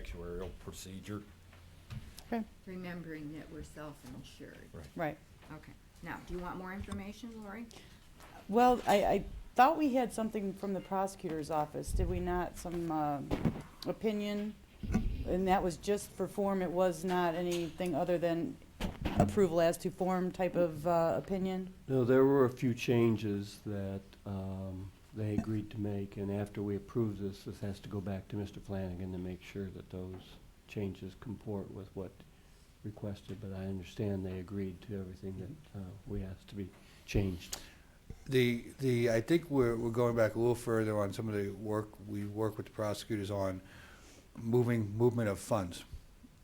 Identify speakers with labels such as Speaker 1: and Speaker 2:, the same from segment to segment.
Speaker 1: actuarial procedure.
Speaker 2: Okay,
Speaker 3: remembering that we're self-insured.
Speaker 1: Right.
Speaker 2: right.
Speaker 3: Okay, now, do you want more information, Lori?
Speaker 2: Well, I, I thought we had something from the prosecutor's office, did we not, some, uh, opinion? And that was just for form, it was not anything other than approval as to form type of, uh, opinion?
Speaker 4: No, there were a few changes that um, they agreed to make, and after we approve this, this has to go back to Mr. Flanagan to make sure that those changes comport with what requested, but I understand they agreed to everything that uh, we asked to be changed.
Speaker 5: The, the, I think we're, we're going back a little further on some of the work, we work with the prosecutors on moving, movement of funds,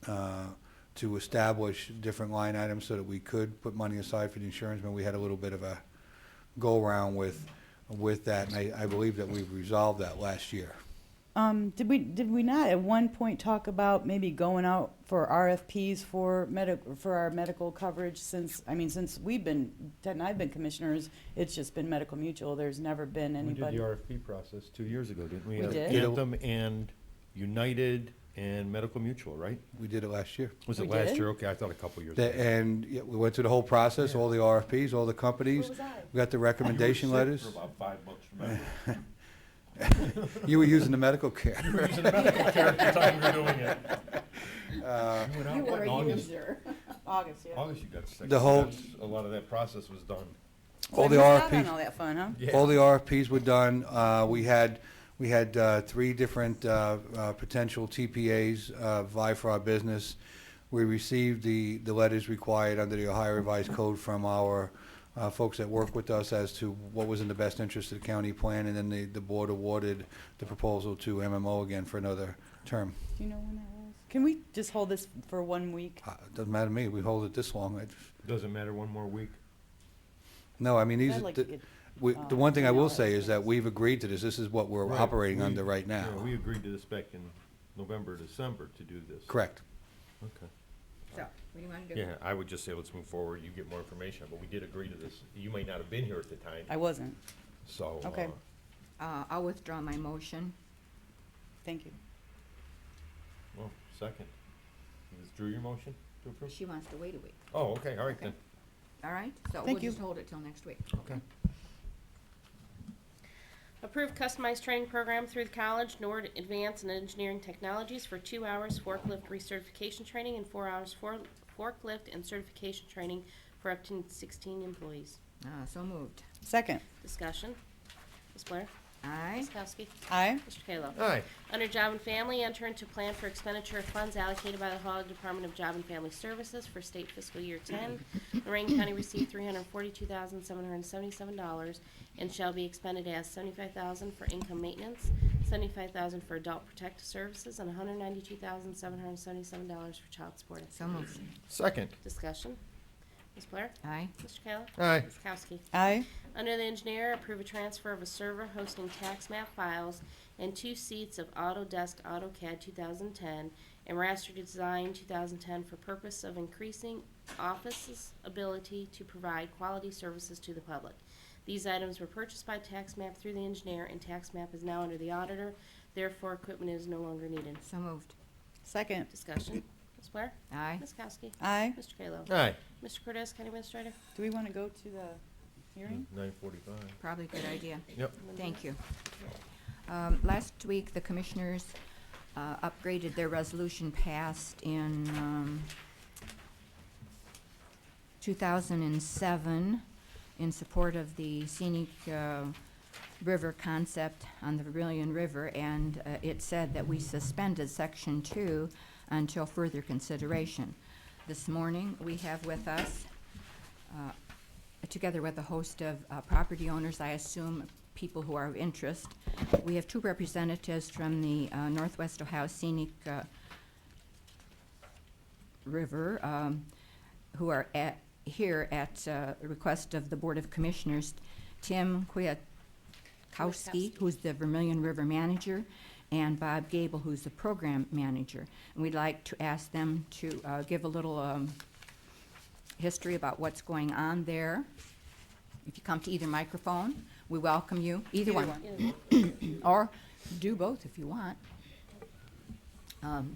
Speaker 5: uh, to establish different line items so that we could put money aside for the insurance, but we had a little bit of a go-around with, with that, and I, I believe that we've resolved that last year.
Speaker 2: Um, did we, did we not at one point talk about maybe going out for RFPs for medic, for our medical coverage since, I mean, since we've been, Ted and I've been commissioners, it's just been medical mutual, there's never been
Speaker 6: We did
Speaker 2: anybody.
Speaker 6: the RFP process two years ago, didn't we?
Speaker 2: We
Speaker 6: Uh,
Speaker 2: did.
Speaker 6: Anthem and United and Medical Mutual, right?
Speaker 5: We did it last year.
Speaker 6: Was
Speaker 2: We
Speaker 6: it last
Speaker 2: did.
Speaker 6: year? Okay, I thought a couple years.
Speaker 5: That-
Speaker 6: ago.
Speaker 5: And yeah, we went through the whole process, all the RFPs, all the companies. We got the recommendation
Speaker 1: You were sick
Speaker 5: letters.
Speaker 1: For about five bucks, remember?
Speaker 5: You were using the medical care.
Speaker 6: You were using the medical care at the time we were doing it.
Speaker 5: Uh,
Speaker 6: You went out,
Speaker 3: You
Speaker 6: what,
Speaker 3: were
Speaker 6: in
Speaker 3: a
Speaker 6: August?
Speaker 3: user.
Speaker 2: August, yeah.
Speaker 6: August you got sick.
Speaker 5: The whole-
Speaker 6: That's- A lot of that process was done.
Speaker 2: So I
Speaker 5: All the
Speaker 2: missed out on
Speaker 5: RFPs.
Speaker 2: all that fun, huh?
Speaker 5: All the RFPs were done. Uh, We had, we had uh, three different uh, uh, potential TPAs uh, vie for our business. We received the, the letters required under the Ohio Revised Code from our uh, folks that work with us as to what was in the best interest of the county plan, and then the, the board awarded the proposal to MMO again for another term.
Speaker 2: Do you know when that was? Can we just hold this for one week?
Speaker 5: Uh, Doesn't matter to me, we hold it this long. It's-
Speaker 6: Doesn't matter, one more week.
Speaker 5: No, I mean, these,
Speaker 2: I'd
Speaker 5: are
Speaker 2: like to
Speaker 5: the
Speaker 2: get-
Speaker 5: we-
Speaker 2: uh,
Speaker 5: the one thing I
Speaker 2: email
Speaker 5: will say is that
Speaker 2: estimates.
Speaker 5: we've agreed to this. This is what we're
Speaker 6: Right,
Speaker 5: operating
Speaker 6: we-
Speaker 5: under right now.
Speaker 6: yeah, We agreed to this back in November, December to do this.
Speaker 5: Correct.
Speaker 6: Okay.
Speaker 3: So, what do you want to do?
Speaker 6: Yeah, I would just say let's move forward, you get more information, but we did agree to this. You may not have been here at the
Speaker 2: I
Speaker 6: time,
Speaker 2: wasn't.
Speaker 6: so.
Speaker 2: okay.
Speaker 6: uh,
Speaker 3: Uh, I'll withdraw my motion.
Speaker 2: Thank you.
Speaker 6: Well, second. You withdrew your motion to approve?
Speaker 3: She wants to wait a week,
Speaker 6: Oh, okay, all right then.
Speaker 3: all right? So we'll
Speaker 2: Thank you.
Speaker 3: just hold it till next week.
Speaker 6: Okay.
Speaker 7: Approve customized training program through the college, Nord Advanced in Engineering Technologies for two hours forklift recertification training and four hours for forklift and certification training for up to sixteen employees.
Speaker 3: Uh, so moved.
Speaker 2: Second.
Speaker 7: Discussion. Ms. Blair?
Speaker 3: Aye.
Speaker 7: Ms. Kowski?
Speaker 2: Aye.
Speaker 7: Mr. Kayla?
Speaker 6: Aye,
Speaker 7: Under Job and Family, enter into plan for expenditure of funds allocated by the Ohio Department of Job and Family Services for state fiscal year ten. Lorraine County received three hundred forty-two thousand, seven hundred seventy-seven dollars and shall be expended as seventy-five thousand for income maintenance, seventy-five thousand for adult protective services, and hundred ninety-two thousand, seven hundred seventy-seven dollars for child support.
Speaker 3: So moved.
Speaker 6: second.
Speaker 7: Discussion. Ms. Blair?
Speaker 3: Aye.
Speaker 7: Mr. Kayla?
Speaker 6: Aye,
Speaker 7: Ms. Kowski?
Speaker 2: Aye.
Speaker 7: Under the engineer, approve a transfer of a server hosting tax map files and two seats of Autodesk AutoCAD 2010 and Raster Design 2010 for purpose of increasing Office's ability to provide quality services to the public. These items were purchased by tax map through the engineer, and tax map is now under the auditor. Therefore, equipment is no longer needed.
Speaker 3: So moved.
Speaker 2: Second.
Speaker 7: Discussion. Ms. Blair?
Speaker 3: Aye.
Speaker 7: Ms. Kowski?
Speaker 2: Aye.
Speaker 7: Mr. Kayla?
Speaker 6: aye.
Speaker 7: Mr. Cortez, County Administrator?
Speaker 2: Do we want to go to the hearing?
Speaker 6: Nine forty-five.
Speaker 3: Probably a good idea.
Speaker 6: Yep.
Speaker 3: Thank you. Um, Last week, the commissioners uh, upgraded their resolution passed in um, 2007 in support of the scenic uh, river concept on the Vermillion River, and uh, it said that we suspended Section 2 until further consideration. This morning, we have with us uh, together with a host of uh, property owners, I assume people who are of interest. We have two representatives from the uh, Northwest Ohio Scenic uh, River um, who are at, here at uh, request of the Board of Commissioners, Tim Kwiatkowski,
Speaker 7: Kwiatkowski.
Speaker 3: who's the Vermillion River Manager, and Bob Gable, who's the Program Manager. And we'd like to ask them to uh, give a little um, history about what's going on there. If you come to either microphone, we welcome you, either one,
Speaker 7: Either one.
Speaker 3: or do both if you want. Um,